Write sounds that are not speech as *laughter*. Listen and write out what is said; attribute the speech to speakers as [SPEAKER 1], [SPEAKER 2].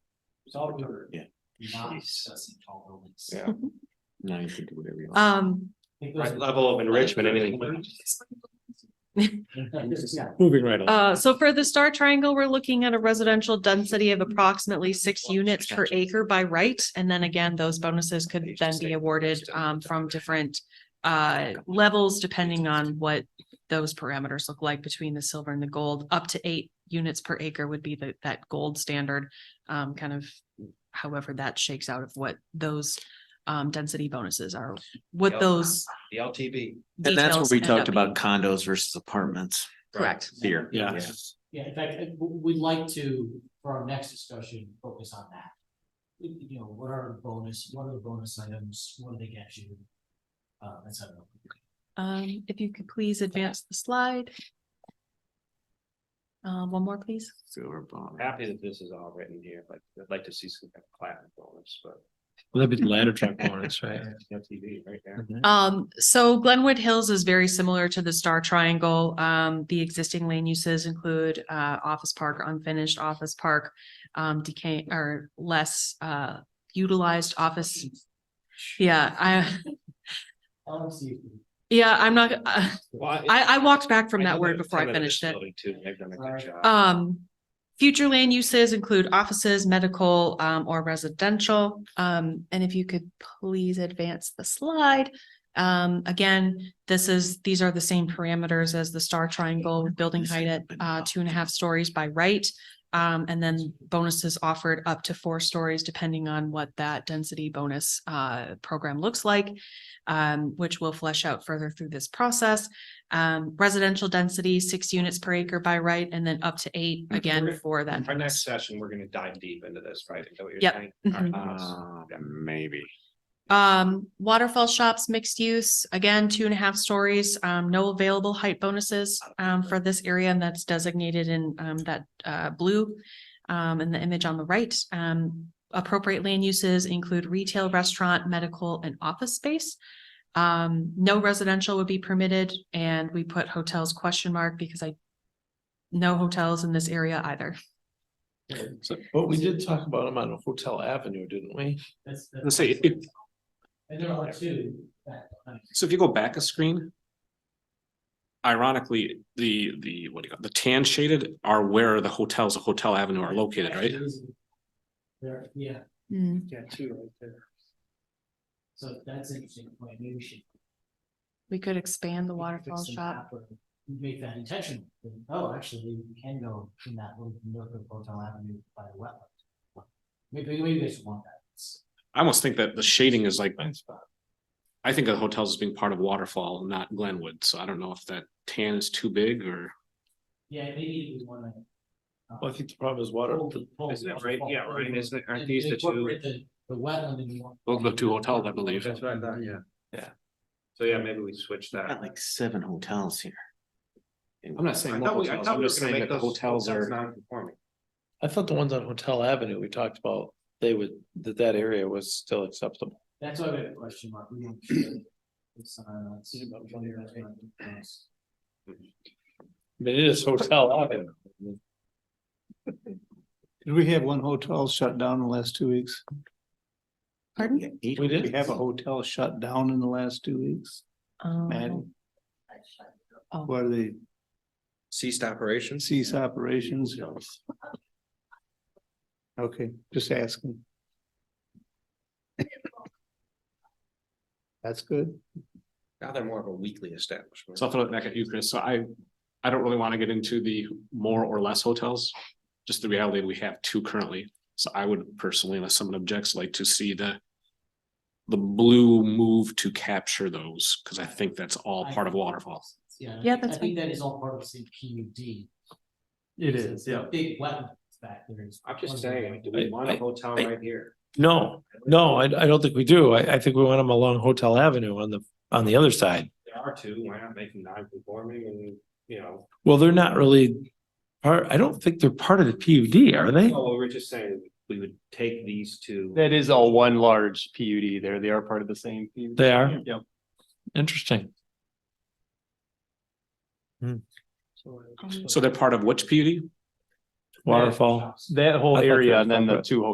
[SPEAKER 1] It's all dirt.
[SPEAKER 2] Yeah.
[SPEAKER 1] You're not
[SPEAKER 2] Jeez.
[SPEAKER 1] assessing tall buildings.
[SPEAKER 2] Yeah. Now you can do whatever you want.
[SPEAKER 3] Um,
[SPEAKER 1] I think those
[SPEAKER 2] Right
[SPEAKER 1] are-
[SPEAKER 2] level of enrichment, anything.
[SPEAKER 1] Yeah.
[SPEAKER 2] Moving right along.
[SPEAKER 3] uh, so for the star triangle, we're looking at a residential density of approximately six units per acre by right. And then again, those bonuses could then be awarded, um, from different uh, levels depending on what those parameters look like between the silver and the gold. Up to eight units per acre would be the, that gold standard, um, kind of however that shakes out of what those um, density bonuses are, what
[SPEAKER 2] Yep.
[SPEAKER 3] those
[SPEAKER 2] The LTV.
[SPEAKER 4] And that's what
[SPEAKER 3] uh, details
[SPEAKER 4] we
[SPEAKER 3] end up
[SPEAKER 4] talked about
[SPEAKER 3] being.
[SPEAKER 4] condos versus apartments
[SPEAKER 3] Correct.
[SPEAKER 4] here.
[SPEAKER 2] Yeah.
[SPEAKER 1] Yeah, in fact, I- we- we'd like to, for our next discussion, focus on that. You you know, what are bonus, what are the bonus items, what do they get you? Uh, that's how.
[SPEAKER 3] Um, if you could please advance the slide. Uh, one more, please.
[SPEAKER 4] Silver bond.
[SPEAKER 2] Happy that this is all written here, but I'd like to see some kind of platinum bonus, but.
[SPEAKER 5] Well, That'd be the ladder truck bonus, right?
[SPEAKER 2] LTV right there.
[SPEAKER 3] Um, so Glenwood Hills is very similar to the Star Triangle. Um, the existing land uses include uh office park, unfinished office park. Um, decay or less uh utilized office. Yeah, I, *laughs*
[SPEAKER 1] LMC,
[SPEAKER 3] yeah, I'm not, *laughs* I I walked back from that word before I
[SPEAKER 2] Some of this
[SPEAKER 3] finished it.
[SPEAKER 2] building Too, they've done a good
[SPEAKER 1] Right.
[SPEAKER 2] job.
[SPEAKER 3] Um, future land uses include offices, medical, um, or residential. Um, and if you could please advance the slide. Um, again, this is, these are the same parameters as the star triangle, with building height at, uh, two and a half stories by right. Um, and then bonuses offered up to four stories depending on what that density bonus, uh, program looks like. Um, which will flesh out further through this process. Um, residential density, six units per acre by right, and then up to eight again
[SPEAKER 2] Okay.
[SPEAKER 3] for that.
[SPEAKER 2] Our next session, we're gonna dive deep into this, right? Is that what you're
[SPEAKER 3] Yep.
[SPEAKER 2] saying?
[SPEAKER 3] Mhm.
[SPEAKER 4] Mm-hmm.
[SPEAKER 2] Uh,
[SPEAKER 4] Maybe.
[SPEAKER 3] Um, waterfall shops, mixed use, again, two and a half stories, um, no available height bonuses, um, for this area and that's designated in, um, that, uh, blue. Um, in the image on the right, um, appropriate land uses include retail, restaurant, medical and office space. Um, no residential would be permitted and we put hotels question mark because I no hotels in this area either.
[SPEAKER 2] Uh,
[SPEAKER 5] So, but we did talk about them on Hotel Avenue, didn't we?
[SPEAKER 1] that's. that's-
[SPEAKER 2] Let's say if-
[SPEAKER 1] And there are two. that-
[SPEAKER 6] So if you go back a screen. Ironically, the, the, what do you call, it, the tan shaded are where the hotels, of Hotel Avenue are located, right?
[SPEAKER 1] There, yeah.
[SPEAKER 3] Hmm,
[SPEAKER 2] Yeah, two right there.
[SPEAKER 1] So that's an interesting point, maybe we should.
[SPEAKER 3] We could expand the
[SPEAKER 1] we could
[SPEAKER 3] waterfall
[SPEAKER 1] fix the
[SPEAKER 3] shop.
[SPEAKER 1] map or Make that intentional, oh, actually, we can go in that little nook of Hotel Avenue by the wetland. Maybe, maybe they should want that. It's-
[SPEAKER 6] I almost think that the shading is like,
[SPEAKER 5] spot.
[SPEAKER 6] I think of hotels as being part of Waterfall, not Glenwood, so I don't know if that tan is too big or.
[SPEAKER 1] Yeah, maybe we wanna. uh,
[SPEAKER 5] Well, I think the problem is water.
[SPEAKER 1] pull- pull
[SPEAKER 2] Isn't it
[SPEAKER 1] the
[SPEAKER 2] right? Yeah,
[SPEAKER 1] waterfall
[SPEAKER 2] right.
[SPEAKER 1] over
[SPEAKER 2] Isn't it? Aren't
[SPEAKER 1] and
[SPEAKER 2] these the two?
[SPEAKER 1] incorporate The the wetland and you
[SPEAKER 6] Those are the two hotels, I believe.
[SPEAKER 2] That's what I thought, yeah.
[SPEAKER 5] Yeah.
[SPEAKER 2] So yeah, maybe we switch that.
[SPEAKER 4] Got like seven hotels here.
[SPEAKER 6] I'm not
[SPEAKER 2] I
[SPEAKER 6] saying
[SPEAKER 2] thought
[SPEAKER 6] more
[SPEAKER 2] we, I
[SPEAKER 6] hotels,
[SPEAKER 2] thought
[SPEAKER 6] I'm
[SPEAKER 2] we were
[SPEAKER 6] just
[SPEAKER 2] gonna
[SPEAKER 6] saying
[SPEAKER 2] make
[SPEAKER 6] that the
[SPEAKER 2] those
[SPEAKER 6] hotels are,
[SPEAKER 2] Non-conforming.
[SPEAKER 5] I thought the ones on Hotel Avenue we talked about, they would, that that area was still acceptable.
[SPEAKER 1] That's why we have a question mark. We don't sure. It's, uh, it's-
[SPEAKER 5] Is it about one area,
[SPEAKER 1] it's-
[SPEAKER 5] I mean, it is Hotel Avenue.
[SPEAKER 7] Did we have one hotel shut down in the last two weeks?
[SPEAKER 3] Pardon?
[SPEAKER 7] We did have a hotel shut down in the last two weeks.
[SPEAKER 3] Um, oh.
[SPEAKER 7] And what are they,
[SPEAKER 2] Ceased operations.
[SPEAKER 7] cease operations? Okay, just asking. That's good.
[SPEAKER 2] Now they're more of a weekly establishment.
[SPEAKER 6] so I'll throw it back at you, Chris, so I, I don't really wanna get into the more or less hotels. Just the reality, we have two currently, so I would personally, unless someone objects, like to see the. The blue move to capture those, cause I think that's all part of Waterfall.
[SPEAKER 1] Yeah, and I
[SPEAKER 3] Yeah,
[SPEAKER 1] think-
[SPEAKER 3] that's
[SPEAKER 1] I think that is all part of the same PUD.
[SPEAKER 5] It
[SPEAKER 1] It's a Big wetlands back there. is-
[SPEAKER 2] I'm just saying, do we want a hotel right here?
[SPEAKER 5] No, no, I, I don't think we do. I, I think we want them along Hotel Avenue on the, on the other side.
[SPEAKER 2] There are two, why not make them non-conforming and, you know,
[SPEAKER 5] Well, they're not really part, I don't think they're part of the PUD, are they?
[SPEAKER 2] well, we're just saying we would take these two.
[SPEAKER 8] That is all one large PUD there. They are part of the same. PUD.
[SPEAKER 5] They are?
[SPEAKER 8] Yep.
[SPEAKER 5] Interesting.
[SPEAKER 3] Um,
[SPEAKER 6] So they're part of which PUD?
[SPEAKER 5] Waterfall.
[SPEAKER 8] That whole
[SPEAKER 5] I thought they
[SPEAKER 8] area
[SPEAKER 5] were
[SPEAKER 8] and then the
[SPEAKER 5] separate.
[SPEAKER 8] two hotels